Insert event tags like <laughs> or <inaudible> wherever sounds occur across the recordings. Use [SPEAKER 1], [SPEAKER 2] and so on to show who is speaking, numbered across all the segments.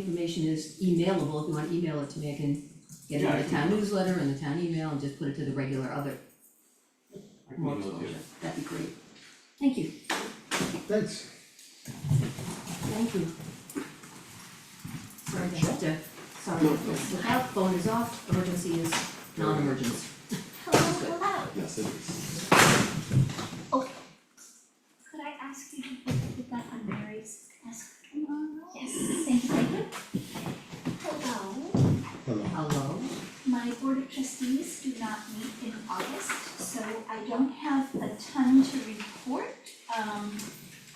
[SPEAKER 1] Information is emailable, if you wanna email it to me, I can get it
[SPEAKER 2] Yeah,
[SPEAKER 1] on
[SPEAKER 2] I
[SPEAKER 1] the town newsletter and the town email and just put it to the regular other.
[SPEAKER 2] can
[SPEAKER 1] More
[SPEAKER 2] email it to you.
[SPEAKER 1] exposure, that'd be great. Thank you,
[SPEAKER 3] Thanks.
[SPEAKER 1] thank you. Sorry to have to, sorry,
[SPEAKER 2] No, no.
[SPEAKER 1] look out, phone is off, emergency is non-emergency.
[SPEAKER 4] Hello, hello.
[SPEAKER 2] Yes, it is.
[SPEAKER 4] Could I ask you to put that on Mary's desk tomorrow? Yes, thank you, thank you. Hello,
[SPEAKER 3] Hello.
[SPEAKER 1] Hello,
[SPEAKER 4] my board of trustees do not meet in August, so I don't have a ton to report. Um,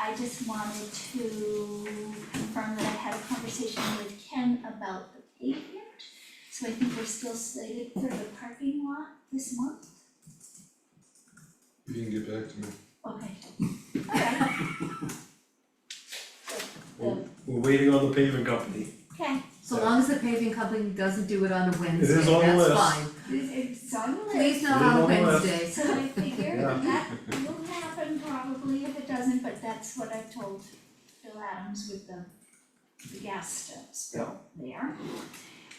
[SPEAKER 4] I just wanted to confirm that I had a conversation with Ken about the pavement. So I think we're still slated for the parking lot this month.
[SPEAKER 5] You didn't get back to me.
[SPEAKER 4] Okay,
[SPEAKER 1] <laughs>
[SPEAKER 4] alright. The,
[SPEAKER 6] We're waiting on the paving company.
[SPEAKER 4] okay.
[SPEAKER 1] so long as the paving company doesn't do it on a Wednesday, that's
[SPEAKER 6] is on the
[SPEAKER 1] fine.
[SPEAKER 6] list.
[SPEAKER 4] It's on the
[SPEAKER 1] Please
[SPEAKER 4] list,
[SPEAKER 1] not on
[SPEAKER 6] It is on the list.
[SPEAKER 1] Wednesday.
[SPEAKER 4] so I figure
[SPEAKER 6] Yeah.
[SPEAKER 4] that will happen probably if it doesn't, but that's what I told Bill Adams with the the gas stove spill there.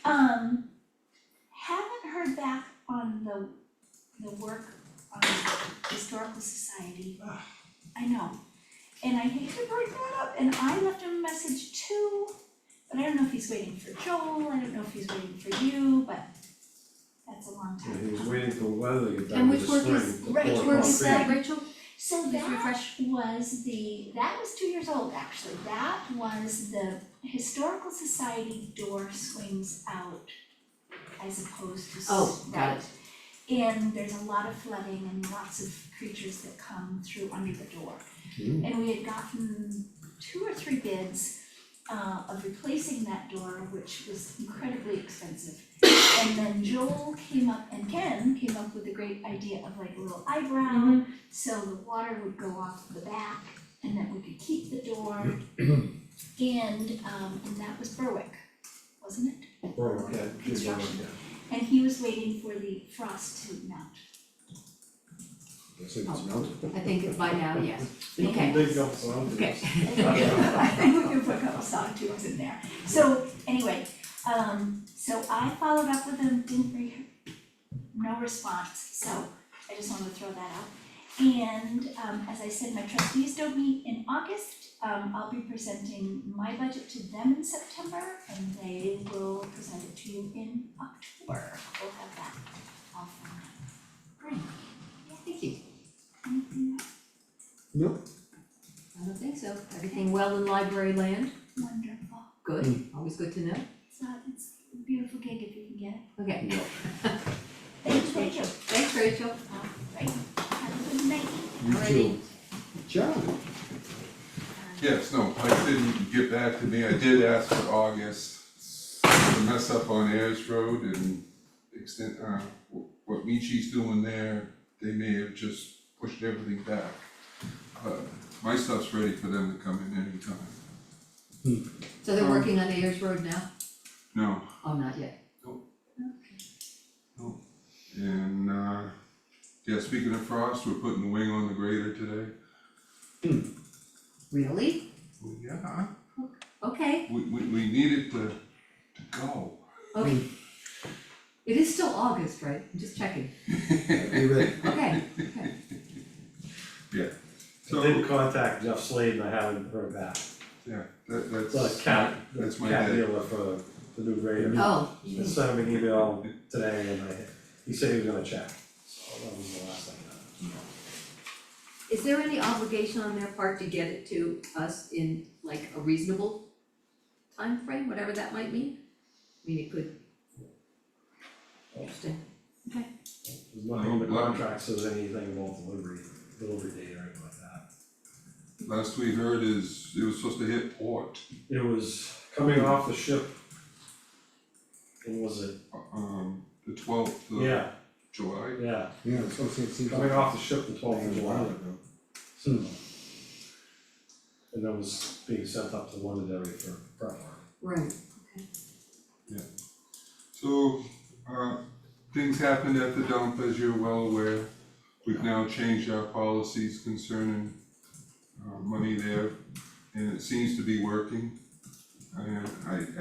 [SPEAKER 4] Um, haven't heard back on the the work on the historical society. I know, and I hate to bring that up, and I left him a message too, but I don't know if he's waiting for Joel, I don't know if he's waiting for you, but that's a long time.
[SPEAKER 6] And he was waiting for weather to get
[SPEAKER 1] And
[SPEAKER 6] down to
[SPEAKER 1] which
[SPEAKER 6] the
[SPEAKER 1] work
[SPEAKER 6] spring.
[SPEAKER 1] is-
[SPEAKER 6] to
[SPEAKER 4] right,
[SPEAKER 6] pour
[SPEAKER 4] which
[SPEAKER 6] it
[SPEAKER 4] work
[SPEAKER 6] on
[SPEAKER 4] is
[SPEAKER 6] the
[SPEAKER 4] that?
[SPEAKER 1] Rachel,
[SPEAKER 4] So
[SPEAKER 1] Please
[SPEAKER 4] that
[SPEAKER 1] refresh.
[SPEAKER 4] was the, that was two years old actually, that was the Historical Society door swings out as opposed to. s-
[SPEAKER 1] Oh, got it.
[SPEAKER 4] right. And there's a lot of flooding and lots of creatures that come through under the door.
[SPEAKER 6] Hmm.
[SPEAKER 4] And we had gotten two or three bids uh of replacing that door, which was incredibly expensive. And then Joel came up and Ken came up with the great idea of like a little eyebrow
[SPEAKER 1] Mm-hmm.
[SPEAKER 4] so the water would go off the back and that we could keep the door. And um and that was Berwick, wasn't it?
[SPEAKER 6] Or, yeah, give them,
[SPEAKER 4] Construction.
[SPEAKER 6] yeah.
[SPEAKER 4] And he was waiting for the frost to melt.
[SPEAKER 3] I think it's mounted.
[SPEAKER 1] I think by now, yes,
[SPEAKER 6] You
[SPEAKER 1] Okay.
[SPEAKER 6] can dig up some.
[SPEAKER 1] okay.
[SPEAKER 4] <laughs> I think we can put a couple sawtooths in there. So anyway, um so I followed up with him, didn't re- no response, so I just wanted to throw that out. And um as I said, my trustees don't meet in August, um I'll be presenting my budget to them in September and they will present it to you in October. We'll have that all for now.
[SPEAKER 1] Great. Thank you.
[SPEAKER 4] Anything else?
[SPEAKER 3] No,
[SPEAKER 1] I don't think so. Everything well in library land?
[SPEAKER 4] Wonderful.
[SPEAKER 1] Good,
[SPEAKER 3] Mm.
[SPEAKER 1] always good to know.
[SPEAKER 4] So it's a beautiful gig if you can get it.
[SPEAKER 1] Okay,
[SPEAKER 3] no.
[SPEAKER 4] Thank you, thank you.
[SPEAKER 1] thanks Rachel.
[SPEAKER 4] Right, have a good night.
[SPEAKER 3] You
[SPEAKER 1] Alrighty.
[SPEAKER 3] too. John,
[SPEAKER 5] Yes, no, Mike didn't get back to me, I did ask for August, the mess up on Ayers Road and extent, uh, wh- what Michi's doing there, they may have just pushed everything back. But my stuff's ready for them to come in anytime,
[SPEAKER 1] So they're working on Ayers Road now?
[SPEAKER 5] no,
[SPEAKER 1] Oh, not yet.
[SPEAKER 5] and, uh, yeah, speaking of frost, we're putting the wing on the grader today.
[SPEAKER 1] Really?
[SPEAKER 5] Well, Yeah,
[SPEAKER 1] Okay,
[SPEAKER 5] we, we, we need it to, to go.
[SPEAKER 1] okay.
[SPEAKER 3] Mm.
[SPEAKER 1] It is still August, right? I'm just checking.
[SPEAKER 5] <laughs>
[SPEAKER 3] you ready?
[SPEAKER 1] Okay, okay.
[SPEAKER 6] I did contact Jeff Slade and I haven't heard back.
[SPEAKER 5] Yeah, that, that's.
[SPEAKER 6] So Cat,
[SPEAKER 5] That's my
[SPEAKER 6] Cat
[SPEAKER 5] dad.
[SPEAKER 6] dealer for the new
[SPEAKER 3] Mm.
[SPEAKER 6] grader.
[SPEAKER 1] Oh,
[SPEAKER 6] He sent me an email today and I, he said he was gonna check, so that was the last thing I
[SPEAKER 1] is there any obligation on their part to get it to us in like a reasonable time frame, whatever that might mean? I mean, it could. Interesting.
[SPEAKER 6] There's nothing in the contract says anything about delivery, delivery date or anything like that.
[SPEAKER 5] Last we heard is it was supposed to hit port,
[SPEAKER 6] It was coming off the ship. And was it,
[SPEAKER 5] um, the twelfth of
[SPEAKER 6] yeah,
[SPEAKER 5] July.
[SPEAKER 6] yeah,
[SPEAKER 3] Yeah, it's also, it seems.
[SPEAKER 6] coming off the ship the
[SPEAKER 3] I
[SPEAKER 6] twelfth
[SPEAKER 3] think
[SPEAKER 6] of
[SPEAKER 3] it's
[SPEAKER 6] July.
[SPEAKER 3] mounted now.
[SPEAKER 6] So.
[SPEAKER 3] Hmm.
[SPEAKER 6] And that was being sent up to Londonderry for prep work.
[SPEAKER 1] Right.
[SPEAKER 5] So, uh, things happened at the dump, as you're well aware. We've now changed our policies concerning, uh, money there, and it seems to be working. And I